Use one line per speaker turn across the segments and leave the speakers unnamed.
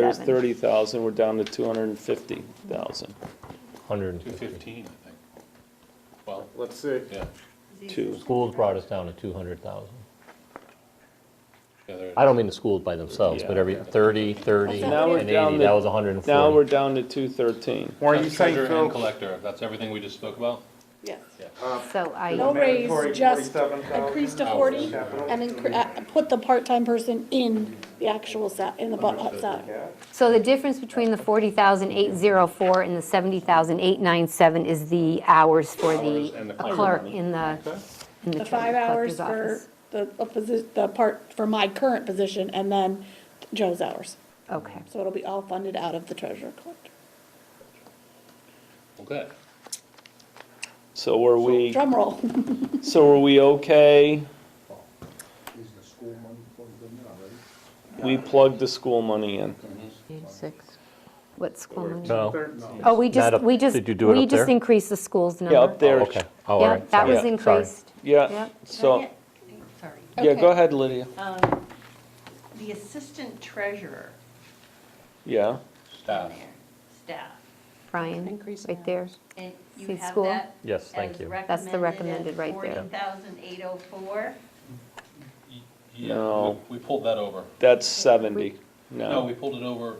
There's
Seven.
thirty thousand, we're down to two hundred and fifty thousand.
100,
Two fifteen, I think. Well,
Let's see.
yeah,
Two,
schools brought us down to 200,000.
yeah, there,
I don't mean the schools by themselves, but every 30, 30,
Now we're
and
down
80,
to-
that was
now we're
140.
down to two thirteen.
Warren, you saying,
treasurer and
Phil?
collector, that's everything we just spoke about?
Yes.
So
No
I,
raise,
Mandatory
just
47,000.
increase to forty
Capital.
and incre- uh, put the part-time person in the actual sa, in the bu- uh, salary.
Yeah.
so the difference between the 40,804 and the 70,897 is the hours for the
and the
a
clerk.
clerk in the, in the
The
treasurer
five hours
collector's
for
office.
the, a posi- the part, for my current position and then Joe's hours.
Okay.
So it'll be all funded out of the treasurer collector.
Okay.
So were we,
Drum roll.
so were we okay?
Is the school money plugged in already?
We plugged the school money in.
What school? money?
No,
Oh, we
That
just,
up-
we just,
did you do it
we
up
just
there?
increased the school's number.
Yeah, up
Oh,
there.
okay, oh, all
Yeah,
right.
that
sorry,
was
sorry.
increased.
Yeah,
Yeah.
so,
Sorry.
yeah,
Okay.
go ahead, Lydia.
Um, The assistant treasurer
Yeah,
down
Staff,
there, staff,
Brian,
Increase in
right there.
and you
See
have
school?
that?
Yes, thank you.
That's the recommended right there.
Forty thousand eight oh four,
yeah,
No.
we we pulled that over.
that's seventy.
No, we
No,
pulled it over,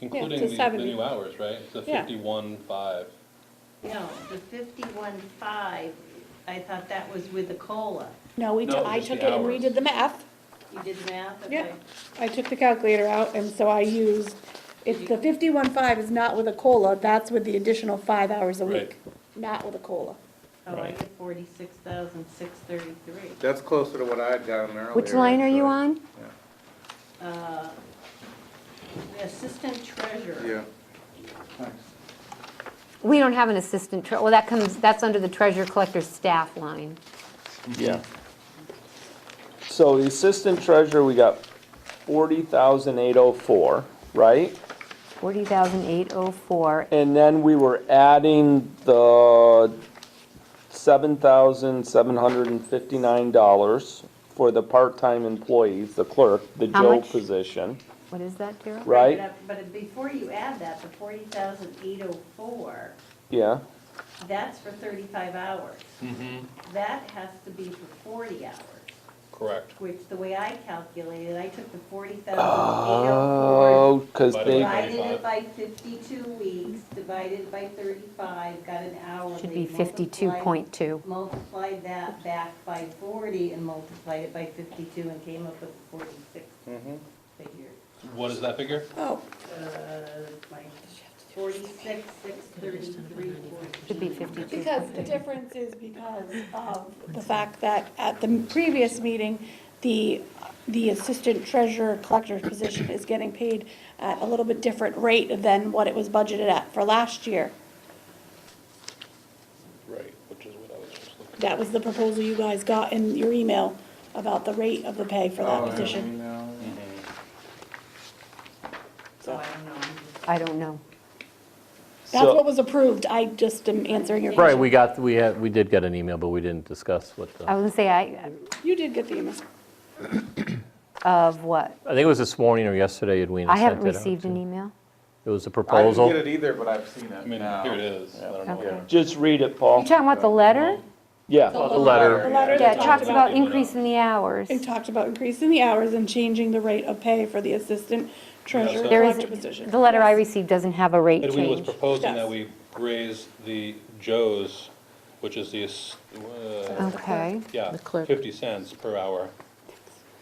including
to
the, the
70.
new hours, right? It's a
Yeah.
fifty-one, five.
no, the fifty-one five, I thought that was with the COLA.
No, we, t-
No,
I
just
took it
the
and
hours.
redid the math.
You did the math?
Yeah,
Okay.
I took the calculator out, and so I used, if the fifty-one five is not with a COLA, that's with the additional five hours a
Right.
week, not with a COLA.
Oh, I get forty-six thousand six thirty-three.
That's closer to what I had gotten earlier.
Which line are you on?
actually.
The assistant treasurer.
Yeah.
We don't have an assistant, tre- well, that comes, that's under the treasurer collector's staff line.
yeah. So the assistant treasurer, we got forty thousand eight oh four, right?
40,804.
And then we were adding the seven thousand seven hundred and fifty-nine dollars for the part-time employees, the clerk, the
How
Joe
much?
position,
What is that, Daryl?
right?
But before you add that, the forty thousand eight oh four,
Yeah,
that's for thirty-five hours. That has to be for forty hours,
Correct.
which the way I calculated, I took the forty thousand eight oh
oh, because
four,
they,
Divided
divided it by fifty-two weeks, divided by thirty-five, got an hourly.
Should be
multiplied-
52.2.
Multiplied that back by forty and multiplied it by fifty-two and came up with forty-six figure.
What is that figure?
Oh,
Forty-six, six thirty-three,
Should be
forty-two.
52.
Because the difference is because of the fact that at the previous meeting, the, the assistant treasurer collector's position is getting paid at a little bit different rate than what it was budgeted at for last year.
Right, which is what I was just looking.
That was the proposal you guys got in your email about the rate of the pay for that position.
So I don't know.
I don't know.
That's what
so,
was approved, I just am answering your
Right,
question.
we got, we had, we did get an email, but we didn't discuss what
I
the,
was gonna say, I,
You did get the email.
of what?
I think it was this morning or yesterday, Edwina
I
sent it out.
haven't received an
to-
email.
It was a
I didn't get
proposal.
it either, but I've seen
I
it
mean,
now.
here it is. I don't know.
Okay.
where-
just read it,
You
Paul.
talking about the letter?
Yeah,
The letter,
The letter
Yeah,
that
it talks
talked
about
about,
increase in the hours.
it talked about increasing the hours and changing the rate of pay for the assistant treasurer
so-
There
collector
is,
position.
the letter I received doesn't have a rate
Edwin was
change.
proposing
Yes.
that we raise the Joe's, which is the, ass- uh,
Okay.
yeah,
The clerk.
fifty cents per hour,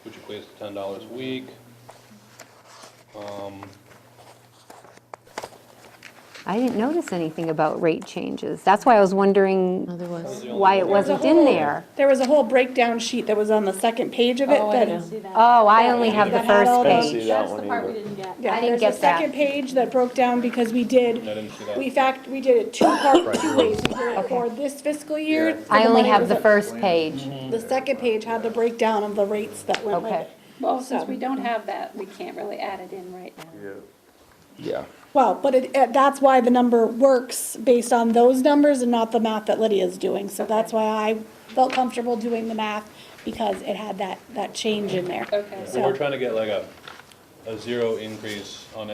which equates to ten dollars a week. Um,
I didn't notice anything about rate changes. That's why I was
No,
wondering
there was.
why it wasn't in there.
There was a whole breakdown sheet that was on the second page of it,
Oh, I
that,
know.
Oh, I only have the
That had all
first
those-
page.
see that one either.
yeah,
I didn't
there's
get
a
that.
second page that broke down because we did,
I didn't see that.
we fact, we did it two part, two ways. We did it For this fiscal year. for
I
the
only
money
have
was
the
up-
first page.
The second page had the breakdown of the rates that went with
Okay.
it.
Well, since we don't have that, we can't really add it in right now.
Yeah.
yeah.
Well, but it, it- that's why the number works based on those numbers and not the math that Lydia's doing. So that's why I felt comfortable doing the math because it had that, that change in there.
Okay.
Well, We're
So
trying to get like a, a zero increase on